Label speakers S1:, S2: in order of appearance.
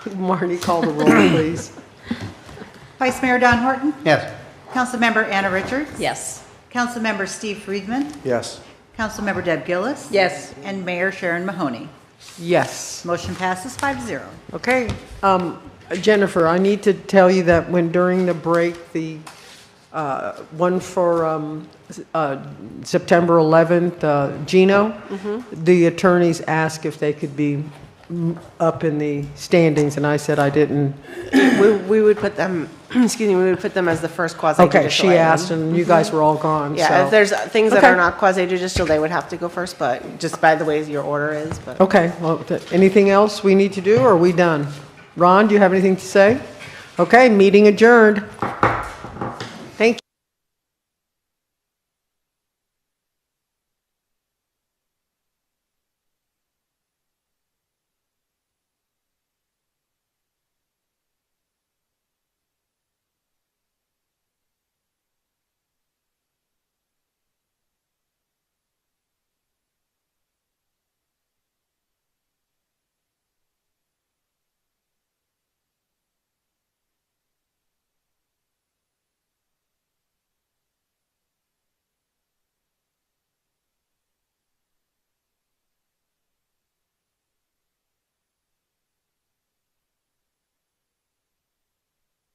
S1: Marnie, call the roll, please.
S2: Vice Mayor Don Horton,
S3: Yes.
S2: Councilmember Anna Richards.
S4: Yes.
S2: Councilmember Steve Friedman,
S3: Yes.
S2: Councilmember Deb Gillis.
S4: Yes.
S2: And Mayor Sharon Mahoney.
S1: Yes.
S2: Motion passes five zero.
S1: Okay. Um, Jennifer, I need to tell you that when during the break, the uh, one for um, s- uh, September 11th, uh, Gino, the attorneys asked if they could be mm, up in the standings, and I said I didn't.
S5: We, we would put them, excuse me, we would put them as the first quasi-judicial
S1: Okay,
S5: item.
S1: she asked, and you guys were all gone,
S5: Yeah,
S1: so-
S5: if there's things that are
S1: Okay.
S5: not quasi-judicial, they would have to go first, but just by the way your order is, but.
S1: Okay, well, th- anything else we need to do, or are we done? Ron, do you have anything to say? Okay, meeting adjourned.